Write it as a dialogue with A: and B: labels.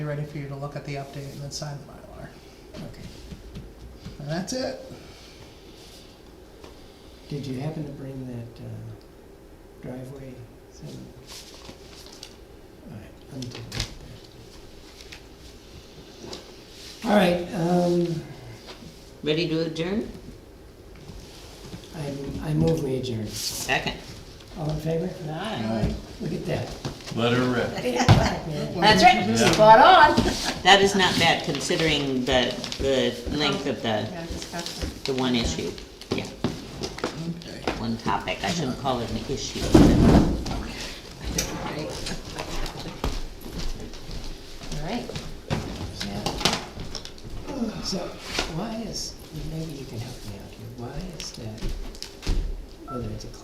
A: be ready for you to look at the update and then sign the Mylar.
B: Okay.
A: And that's it.
B: Did you happen to bring that uh, driveway thing? All right, I'm doing it there. All right, um,
C: Ready to adjourn?
B: I, I move we adjourn.
C: Second.
B: All in favor?
C: Aye.
B: Look at that.
D: Let her rip.
C: That's right.
D: Yeah.
E: Spot on.
C: That is not bad considering the, the length of the,
E: Yeah, discussion.
C: the one issue. Yeah,
A: Okay.
C: one topic. I shouldn't call it an issue.
E: All right.
B: So, why is, maybe you can help me out here, why is that, whether it's a